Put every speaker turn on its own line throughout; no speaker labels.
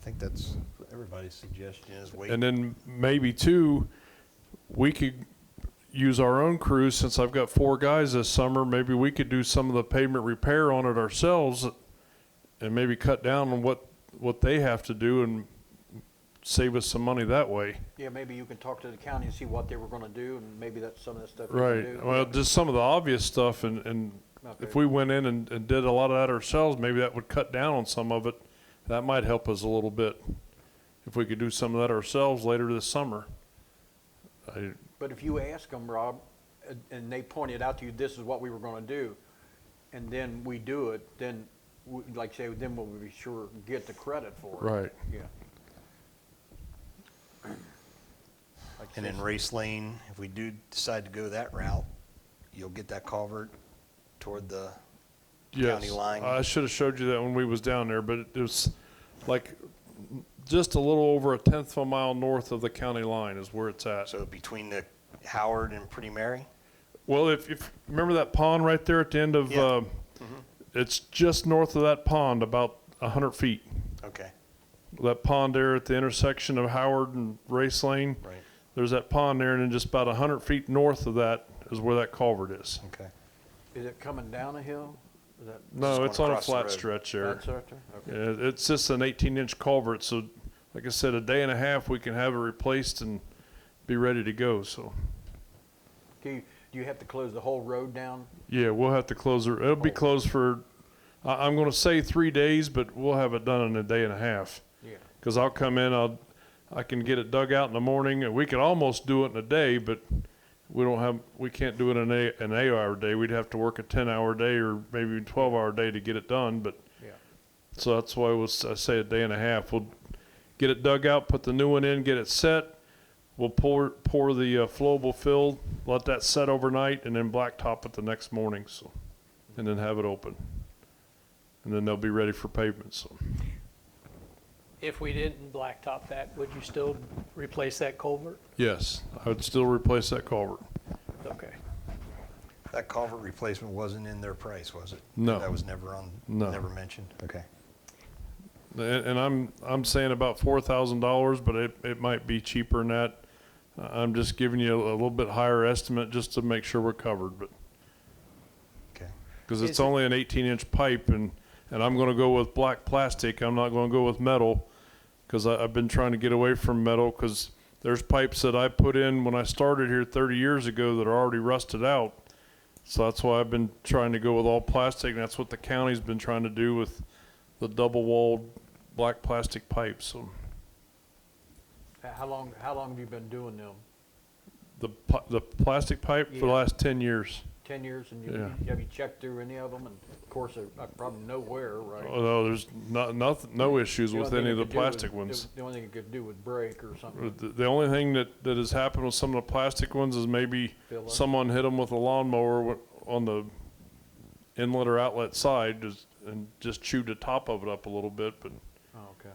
think that's everybody's suggestion is wait.
And then maybe two, we could use our own crews, since I've got four guys this summer, maybe we could do some of the pavement repair on it ourselves and maybe cut down on what, what they have to do and save us some money that way.
Yeah, maybe you can talk to the county and see what they were gonna do, and maybe that's some of that stuff. you can
Right,
do.
well, just some of the obvious stuff and, and if
Okay.
we went in and, and did a lot of that ourselves, maybe that would cut down on some of it. That might help us a little bit, if we could do some of that ourselves later this summer. I,
But if you ask them, Rob, and- and they pointed out to you, this is what we were gonna do, and then we do it, then, we- like you say, then we'll be sure and get the credit for it.
Right.
Yeah. Like you
And
said,
then race lane, if we do decide to go that route, you'll get that culvert toward the county
Yes,
line.
I should have showed you that when we was down there, but it was like just a little over a tenth of a mile north of the county line is where it's at.
So between the Howard and Pretty Mary?
Well, if, if, remember that pond right there at the end of,
Yeah. Mm-hmm.
uh, it's just north of that pond, about a hundred feet.
Okay,
That pond there at the intersection of Howard and Race Lane.
Right.
There's that pond there and then just about a hundred feet north of that is where that culvert is.
okay.
Is it coming down a hill? Is that?
Just
No,
going
it's on a
across the
flat
road.
stretch there.
That's out there? Okay.
Yeah, Uh, it's just an eighteen inch culvert, so like I said, a day and a half, we can have it replaced and be ready to go, so.
Do you, do you have to close the whole road down?
Yeah, we'll have to close it, it'll be closed for, I, I'm gonna say three days, but we'll have it done in a day and a half.
Yeah.
Cause I'll come in, I'll, I can get it dug out in the morning, and we could almost do it in a day, but we don't have, we can't do it in a, an eight hour day, we'd have to work a ten hour day or maybe twelve hour day to get it done, but
Yeah.
So that's why I was, I say a day and a half. We'll get it dug out, put the new one in, get it set. We'll pour, pour the uh, flowable fill, let that set overnight and then blacktop it the next morning, so. And then have it open. And then they'll be ready for pavement, so.
If we didn't blacktop that, would you still replace that culvert?
Yes, I would still replace that culvert.
Okay.
That culvert replacement wasn't in their price, was it?
No.
That was never on,
No.
never mentioned? Okay.
And, and I'm, I'm saying about four thousand dollars, but it, it might be cheaper than that. Uh, I'm just giving you a little bit higher estimate just to make sure we're covered, but.
Okay.
Because
Is
it's
it-
only an 18 inch pipe and, and I'm going to go with black plastic. I'm not going to go with metal because I've been trying to get away from metal because there's pipes that I put in when I started here 30 years ago that are already rusted out. So that's why I've been trying to go with all plastic. And that's what the county's been trying to do with the double walled black plastic pipes. So
How- How long, how long have you been doing them?
the, pl- the plastic pipe for the
Yeah.
last 10 years.
10 years, and you-
Yeah.
have you checked through any of them? And of course, I I probably know where, right?
Oh, no, there's not, nothing, no issues
The
with
only
any
thing
of
it
the
could do is-
plastic ones.
The only thing it could do would break or something.
The the only thing that, that has happened with some of the plastic ones is maybe
Fill up.
someone hit them with a lawnmower wi- on the inlet or outlet side just- and just chewed the top of it up a little bit, but,
Oh, okay.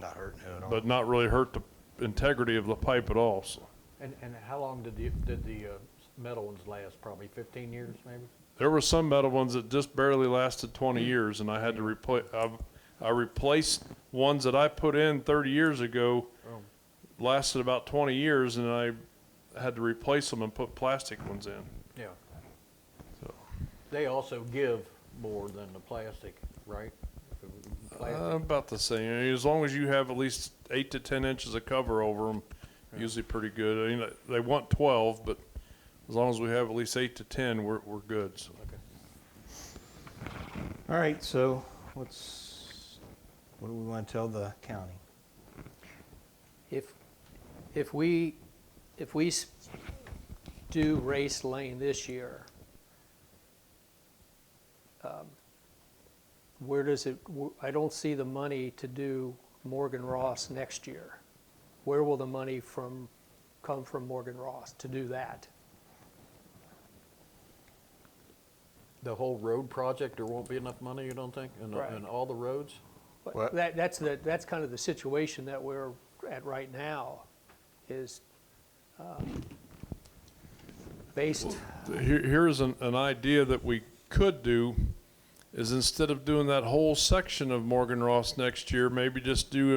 Not hurting it at all.
but not really hurt the integrity of the pipe at all, so.
And, and how long did the, did the uh, metal ones last? Probably 15 years, maybe?
There were some metal ones that just barely lasted twenty years, and I had to replace. I, I replaced ones that I put in thirty years ago.
Oh.
Lasted about twenty years, and I had to replace them and put plastic ones in.
Yeah.
So.
They also give more than the plastic, right? The
Uh,
plastic-
about the same. I mean, As long as you have at least eight to ten inches of cover over them, usually pretty good. I mean, they want twelve, but as long as we have at least eight to ten, we're we're good. So.
Okay.
All right, so what's, what do we want to tell the county?
If, if we, if we s- do race lane this year, um, where does it, wh- I don't see the money to do Morgan Ross next year. Where will the money from, come from Morgan Ross to do that?
The whole road project, there won't be enough money, you don't think? In, the- in
Right.
all the roads?
But
Well-
That, that's the, that's kind of the situation that we're at right now, is, um, based,
Here, here's an, an idea that we could do: is instead of doing that whole section of Morgan Ross next year, maybe just do